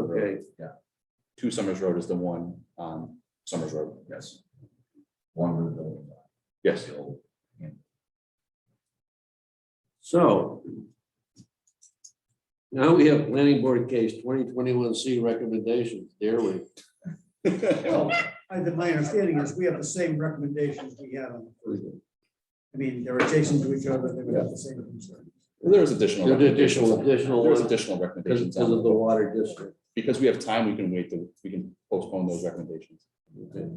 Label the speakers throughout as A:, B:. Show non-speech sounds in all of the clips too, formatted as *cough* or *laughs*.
A: Okay,
B: Two Summers Road is the one on Summers Road, yes,
C: one with the.
B: yes.
A: so. Now we have planning board case twenty twenty-one C recommendations, dare we?
D: Well, I, that my understanding is we have the same recommendations we have. on the first one. I mean, they're adjacent to each other, they would have the same concern.
B: There's additional.
A: There's
B: recommendations
A: additional,
B: on-
A: additional
B: There's
A: one,
B: additional
A: because
B: recommendations,
A: because
B: on
A: of the
B: it.
A: water district.
B: because we have time, we can wait, to we can postpone those recommendations.
D: The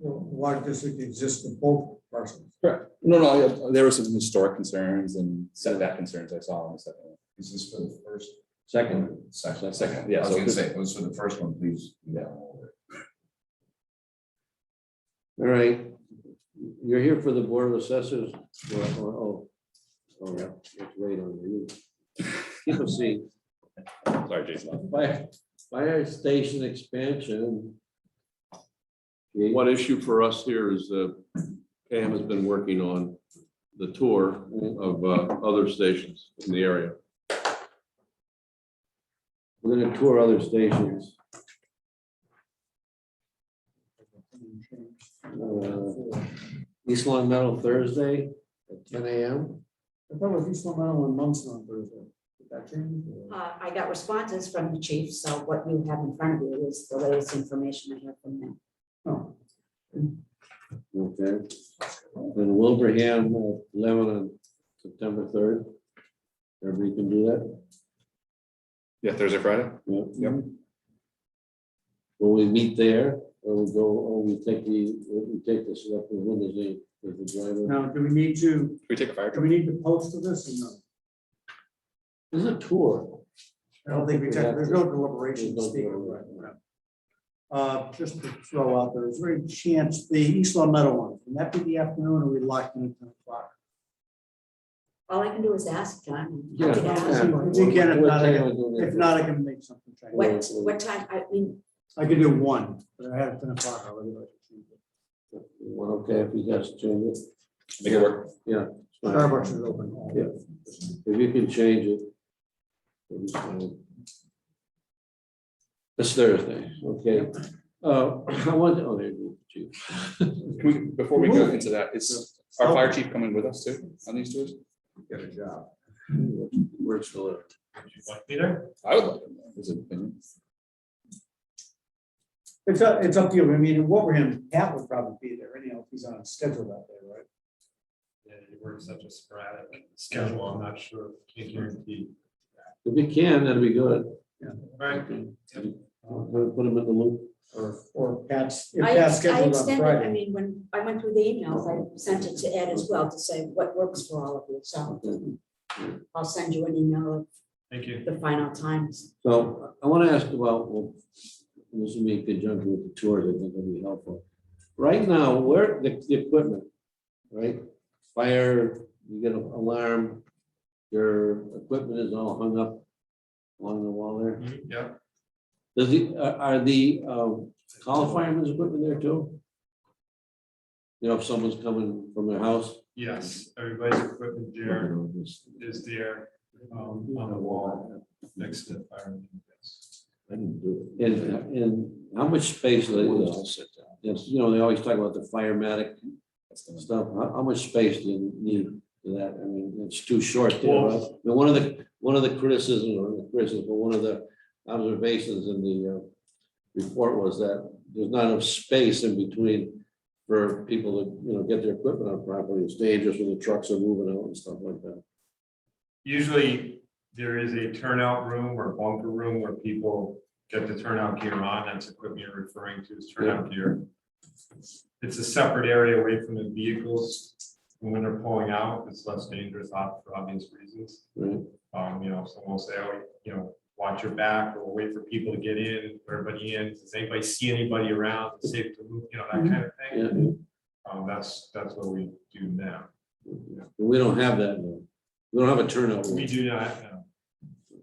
D: Water district exists in both parcels.
B: Correct. No, no, I- there were some historic concerns and setback concerns I saw on the second. one.
C: Is this for the first?
A: Second.
C: Section,
B: Second, yeah,
C: I was
B: so
C: gonna
B: this-
C: say, it was for the first one, please. Yeah.
A: All right, you're here for the Board of Assessors. Well, Oh, oh, oh, yeah, it's right on you. Keep a seat.
B: Sorry, Jason.
A: Fire, fire station expansion. Gee,
E: One issue for us here is that Pam has been working on the tour of uh, other stations in the area.
A: We're gonna tour other stations. Uh, East Long Meadow Thursday at ten AM.
D: I thought it was East Long Island and Monson on Thursday. Did that change?
F: Uh, I got responses from the chief, so what you have in front of you is the latest information I have from them.
D: No.
A: Okay. Then Wilbraham, uh, eleven on September third. Everybody can do that?
B: Yeah, Thursday, Friday?
A: Yeah.
B: Yep.
A: Will we meet there or we go, or we take the, we take the selectmen Wednesday with the driver?
D: Now, do we need to,
B: Can we take a fire
D: do
B: truck?
D: we need to post to this or no?
A: This is a tour.
D: I don't think we, tech- there's no deliberation to
A: There's no
D: speak of right
A: deliberation.
D: now. Uh, just to throw out there, is there any chance, the East Long Meadow one, can that be the afternoon or we locked in at ten o'clock?
F: All I can do is ask John.
A: Yeah.
F: Happy to ask.
D: If you can, if
A: What
D: not, I
A: time
D: can-
A: are we doing that?
D: If not, I can make something change.
F: What, what time, I mean,
D: I could do one, but I had it ten o'clock already.
A: Well, okay, if you guys change it.
B: Make it work.
A: it's fine.
D: Starbucks is open. all day.
A: If you can change it. it'll be fine. It's Thursday, okay. Uh, *coughs* I want, oh, there you go, chief.
B: Can we, before we go into that, is our fire chief coming with us too on these tours?
C: Get a job.
A: *laughs* Works for
B: I would like him. His opinion.
D: It's up, it's up to you. I mean, in Wilbraham, Pat would probably be there anyhow, if he's on a schedule out there, right?
G: Yeah, you work such a sporadic schedule, I'm not sure, can't guarantee.
A: If you can, that'd be good.
G: Right,
A: We'll Put them in the loop.
D: Or, or Pat's, if
F: I,
D: Pat's
F: I
D: scheduled on
F: extended, I
D: Friday.
F: mean, when I went through the emails, I sent it to Ed as well to say what works for all of you, so I'll send you an email
G: thank you.
F: of the final times.
A: So I want to ask about, well, this would be in conjunction with the tours, I think that'd be helpful. Right now, where the, the equipment, right? Fire, you get an alarm, your equipment is all hung up along the wall there.
G: Mhm, Yeah,
A: Does the, are are the, um, call firemen's equipment there too? You know, if someone's coming from their house,
G: yes, everybody's equipment
A: you
G: there
A: know, just.
G: is there, um, on the wall next to the fire.
A: And, and how much space, do they- Yes, you know, they always talk about the firematic
B: That's the one.
A: stuff, how, how much space do you need for that? I mean, it's too short there,
G: Well-
A: right? I mean, one of the, one of the criticisms, or the criticism, but one of the observations in the, uh, report was that there's not enough space in between for people to, you know, get their equipment out properly. It's dangerous when the trucks are moving out and stuff like that.
G: Usually, there is a turnout room or bunker room where people get the turnout gear on, that's equipment you're referring to as turnout gear. It's a separate area away from the vehicles, and when they're pulling out, it's less dangerous, ob- for obvious reasons.
A: Right?
G: Um, you know, someone will say, oh, you know, watch your back or wait for people to get in, everybody in, does anybody see anybody around, Is it safe to move, you know, that kind of thing.
A: Mm-hmm. Yeah,
G: Um, that's, that's what we do now.
A: we don't have that now. We don't have a turnout.
G: We
A: room.
G: do not, uh,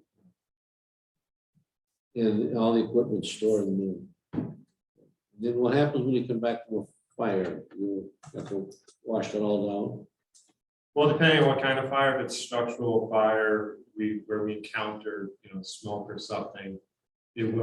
A: And all the equipment stored in there. Then what happens when you come back from a fire? You have to wash it all
G: well, depending on what kind of fire, if it's structural fire, we, where we encounter, you know, smoke or something, it will